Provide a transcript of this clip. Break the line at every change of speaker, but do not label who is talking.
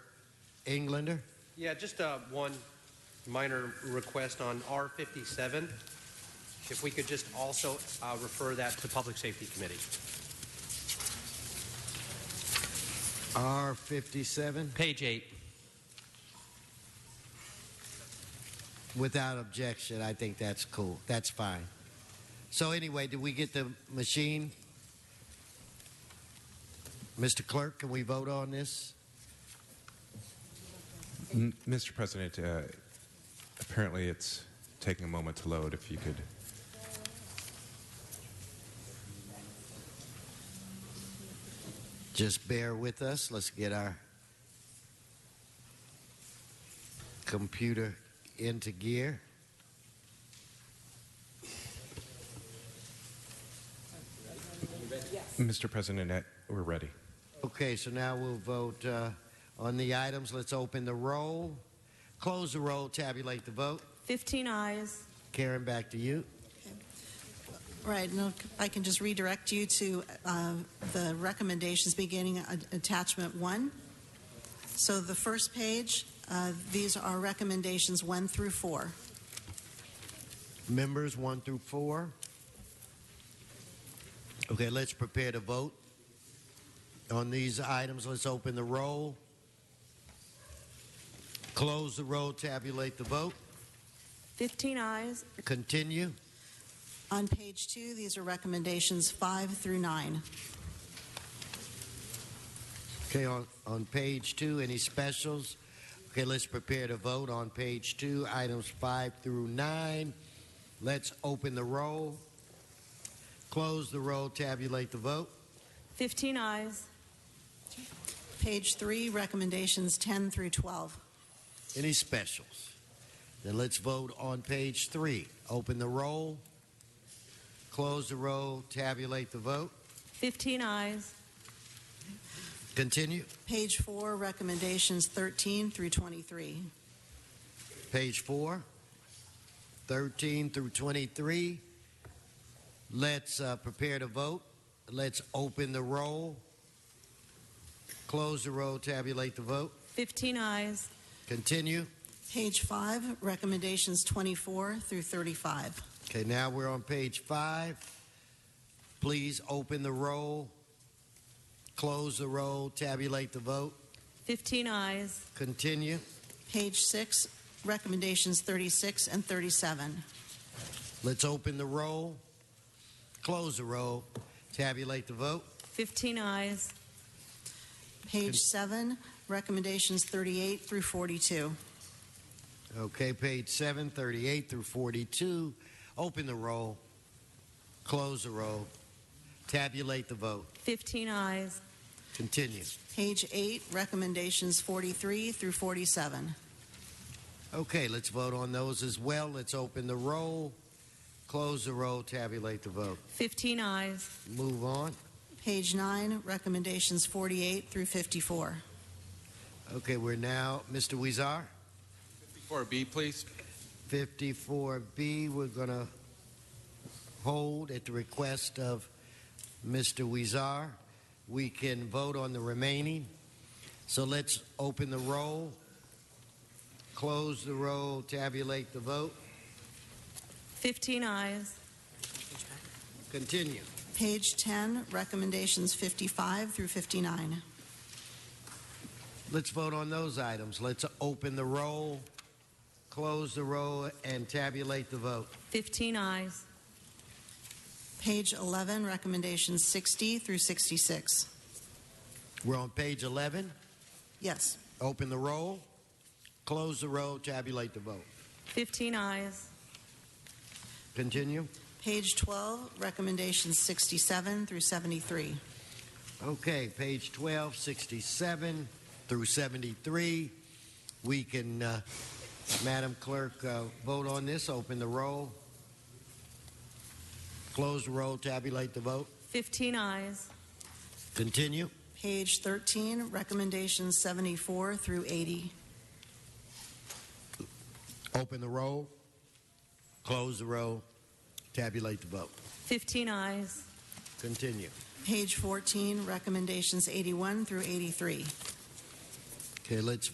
Englander?
Yeah, just uh, one minor request on R57. If we could just also uh, refer that to Public Safety Committee.
R57?
Page eight.
Without objection, I think that's cool. That's fine. So anyway, did we get the machine? Mr. Clerk, can we vote on this?
M- Mr. President, uh, apparently it's taking a moment to load. If you could.
Just bear with us. Let's get our computer into gear.
Mr. President, uh, we're ready.
Okay, so now we'll vote uh, on the items. Let's open the roll, close the roll, tabulate the vote.
15 eyes.
Karen, back to you.
Right, and if I can just redirect you to uh, the recommendations beginning at attachment one. So the first page, uh, these are recommendations one through four.
Members one through four. Okay, let's prepare to vote on these items. Let's open the roll, close the roll, tabulate the vote.
15 eyes.
Continue.
On page two, these are recommendations five through nine.
Okay, on, on page two, any specials? Okay, let's prepare to vote on page two, items five through nine. Let's open the roll, close the roll, tabulate the vote.
15 eyes.
Page three, recommendations 10 through 12.
Any specials? Then let's vote on page three. Open the roll, close the roll, tabulate the vote.
15 eyes.
Continue.
Page four, recommendations 13 through 23.
Page four, 13 through 23. Let's uh, prepare to vote. Let's open the roll, close the roll, tabulate the vote.
15 eyes.
Continue.
Page five, recommendations 24 through 35.
Okay, now we're on page five. Please open the roll, close the roll, tabulate the vote.
15 eyes.
Continue.
Page six, recommendations 36 and 37.
Let's open the roll, close the roll, tabulate the vote.
15 eyes.
Page seven, recommendations 38 through 42.
Okay, page 7, 38 through 42. Open the roll, close the roll, tabulate the vote.
15 eyes.
Continue.
Page eight, recommendations 43 through 47.
Okay, let's vote on those as well. Let's open the roll, close the roll, tabulate the vote.
15 eyes.
Move on.
Page nine, recommendations 48 through 54.
Okay, we're now, Mr. Weezar,
4B, please.
54B. We're going to hold at the request of Mr. Weezar. We can vote on the remaining. So let's open the roll, close the roll, tabulate the vote,
15 eyes.
continue.
Page 10, recommendations 55 through 59.
Let's vote on those items. Let's open the roll, close the roll, and tabulate the vote.
15 eyes.
Page 11, recommendations 60 through 66.
We're on page 11.
Yes.
Open the roll, close the roll, tabulate the vote.
15 eyes.
Continue.
Page 12, recommendations 67 through 73.
Okay, page 12, 67 through 73. We can, uh, Madam Clerk, uh, vote on this. Open the roll. Close the roll, tabulate the vote.
15 eyes.
Continue.
Page 13, recommendations 74 through 80.
Open the roll. Close the roll, tabulate the vote.
15 eyes.
Continue.
Page 14, recommendations 81 through 83.
Okay, let's